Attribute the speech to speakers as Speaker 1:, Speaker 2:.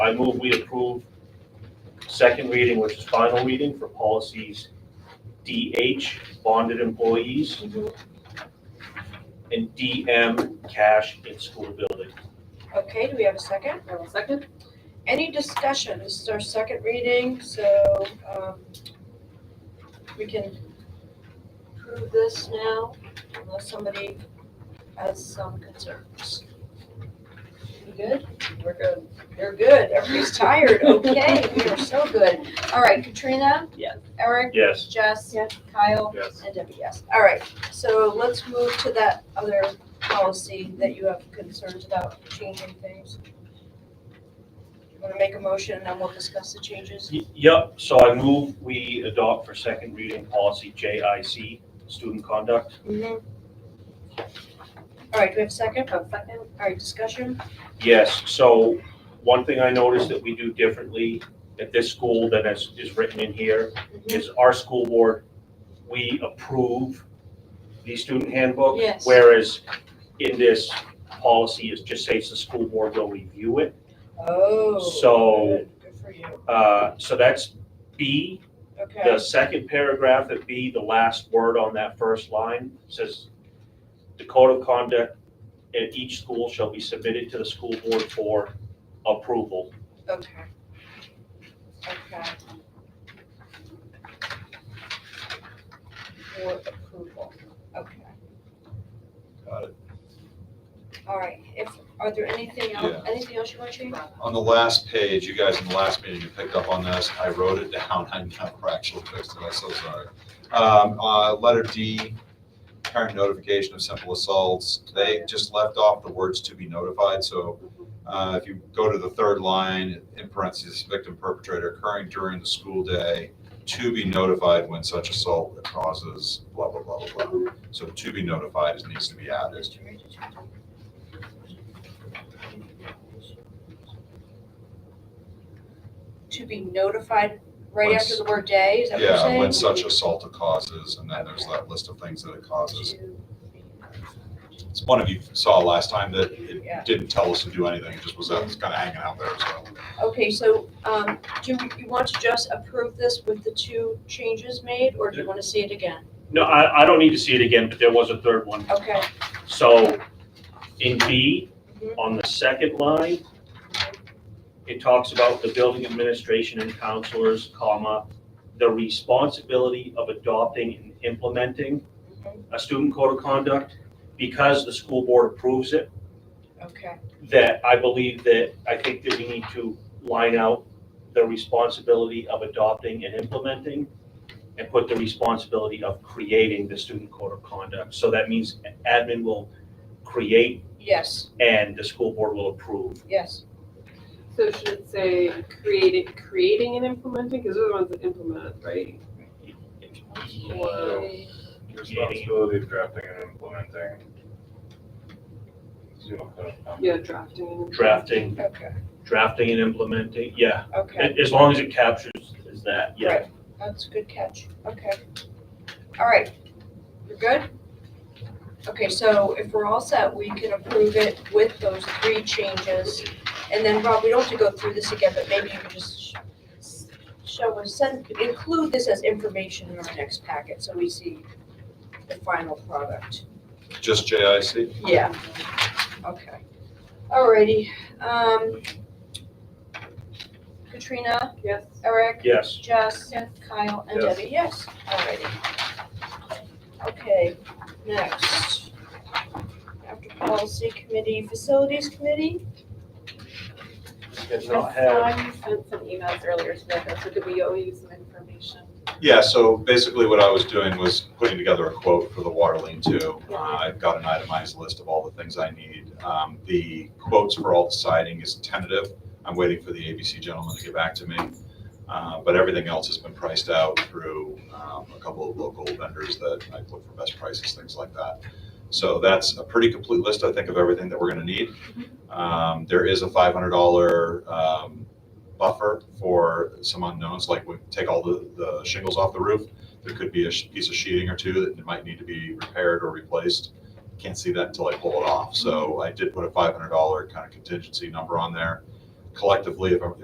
Speaker 1: I move we approve second reading, which is final reading for policies DH, bonded employees, and DM, cash in school building.
Speaker 2: Okay, do we have a second?
Speaker 3: I will second.
Speaker 2: Any discussion? This is our second reading, so um, we can approve this now unless somebody has some concerns. You good?
Speaker 3: We're good.
Speaker 2: You're good. Everybody's tired. Okay, we are so good. All right, Katrina?
Speaker 3: Yes.
Speaker 2: Eric?
Speaker 1: Yes.
Speaker 2: Jess?
Speaker 3: Yes.
Speaker 2: Kyle?
Speaker 1: Yes.
Speaker 2: And Debbie, yes. All right, so let's move to that other policy that you have concerns about changing things. You Want to make a motion and then we'll discuss the changes?
Speaker 1: Y- Yep, so I move we adopt for second reading policy JIC, student conduct.
Speaker 2: All right, do we have a second?
Speaker 3: I will second.
Speaker 2: All right, discussion?
Speaker 1: Yes, so one thing I noticed that we do differently at this school than is, is written in here is our school board, we approve the student handbook.
Speaker 2: Yes.
Speaker 1: Whereas in this policy, it just says the school board will review it.
Speaker 2: Oh.
Speaker 1: So-
Speaker 2: good, Good for you.
Speaker 1: Uh, So that's B, the
Speaker 2: Okay.
Speaker 1: second paragraph at B, the last word on that first line says, the code of conduct at each school shall be submitted to the school board for approval.
Speaker 2: Okay. Okay. For approval, okay.
Speaker 4: Got it.
Speaker 2: All right, if, are there anything else, anything else you want to change?
Speaker 4: On the last page, you guys in the last meeting, you picked up on this. I wrote it down. I never actually fixed it. I'm so sorry. Um, uh, letter D, parent notification of simple assaults. They just left off the words to be notified, so, uh, if you go to the third line, in parentheses, victim perpetrator occurring during the school day, to be notified when such assault causes blah, blah, blah, blah, blah. So to be notified is- needs to be added.
Speaker 2: Mr. Richards? To be notified right after the word day, is that what you're saying?
Speaker 4: Yeah, when such assault causes, and then there's that list of things that it causes. It's one of you saw last time that
Speaker 2: Yeah.
Speaker 4: it didn't tell us to do anything, it just was that, it's kind of hanging out there, so.
Speaker 2: Okay, so, um, do you want to just approve this with the two changes made, or do you want to see it again?
Speaker 1: No, I, I don't need to see it again, but there was a third one.
Speaker 2: Okay,
Speaker 1: So in B,
Speaker 2: Mhm.
Speaker 1: on the second line, it talks about the building administration and counselors, comma, the responsibility of adopting and implementing
Speaker 2: mm-hmm,
Speaker 1: a student code of conduct because the school board approves it,
Speaker 2: okay,
Speaker 1: that I believe that, I think that we need to line out the responsibility of adopting and implementing and put the responsibility of creating the student code of conduct. So that means admin will create
Speaker 2: yes,
Speaker 1: and the school board will approve.
Speaker 2: yes,
Speaker 3: So should it say creating, creating and implementing? Because they're the ones that implement, right? Or-
Speaker 5: Responsibility of drafting and implementing. Zero code of conduct.
Speaker 3: Yeah, drafting and. implementing.
Speaker 1: Drafting,
Speaker 2: okay,
Speaker 1: drafting and implementing, yeah,
Speaker 2: okay,
Speaker 1: a- as long as it captures is that, yeah.
Speaker 2: right, that's a good catch, okay. All right, you're good? Okay, so if we're all set, we can approve it with those three changes. And then, Rob, we don't have to go through this again, but maybe you can just sh- show us, send, include this as information in our next packet, so we see the final product.
Speaker 4: Just JIC,
Speaker 2: Yeah. Okay. Alrighty, um, Katrina,
Speaker 3: Yes.
Speaker 2: Eric,
Speaker 1: Yes,
Speaker 2: Jess, Kyle, and
Speaker 5: Yes.
Speaker 2: Debbie, yes, alrighty. Okay, next. After policy committee, facilities committee,
Speaker 1: did not have,
Speaker 3: you sent some emails earlier today, so did we owe you some information?
Speaker 4: yeah, so basically what I was doing was putting together a quote for the water lean two. Uh, I've got an itemized list of all the things I need. Um, the quotes for all the siding is tentative, I'm waiting for the ABC gentleman to get back to me. Uh, but everything else has been priced out through, um, a couple of local vendors that I look for best prices, things like that. So that's a pretty complete list, I think, of everything that we're gonna need. Um, there is a five hundred dollar, um, buffer for some unknowns, like we take all the, the shingles off the roof. There could be a sh- piece of sheeting or two that might need to be repaired or replaced. Can't see that until I pull it off, so I did put a five hundred dollar kind of contingency number on there. Collectively, if I'm-